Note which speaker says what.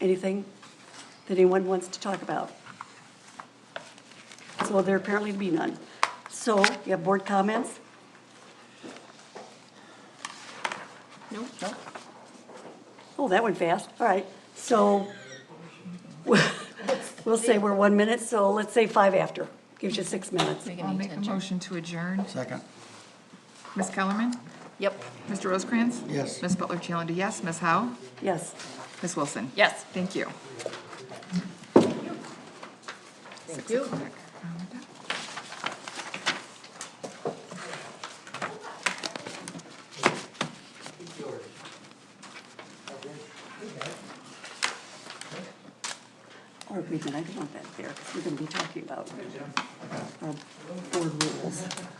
Speaker 1: Anything that anyone wants to talk about? So there apparently be none. So you have board comments?
Speaker 2: Nope.
Speaker 1: Oh, that went fast. All right. So we'll say we're one minute, so let's say five after. Gives you six minutes.
Speaker 2: We
Speaker 3: I'll
Speaker 2: can need
Speaker 3: make
Speaker 2: to
Speaker 3: a
Speaker 2: adjourn.
Speaker 3: motion to adjourn.
Speaker 4: Second,
Speaker 3: Ms. Kellerman?
Speaker 2: Yep.
Speaker 3: Mr. Rosecrans?
Speaker 4: Yes.
Speaker 3: Ms. Butler Challenger, yes. Ms. Howe?
Speaker 1: Yes.
Speaker 3: Ms. Wilson?
Speaker 2: Yes.
Speaker 3: Thank you.
Speaker 2: Thank you.
Speaker 1: Or wait a minute, I don't want that there, because we're going to be talking about our uh, board rules.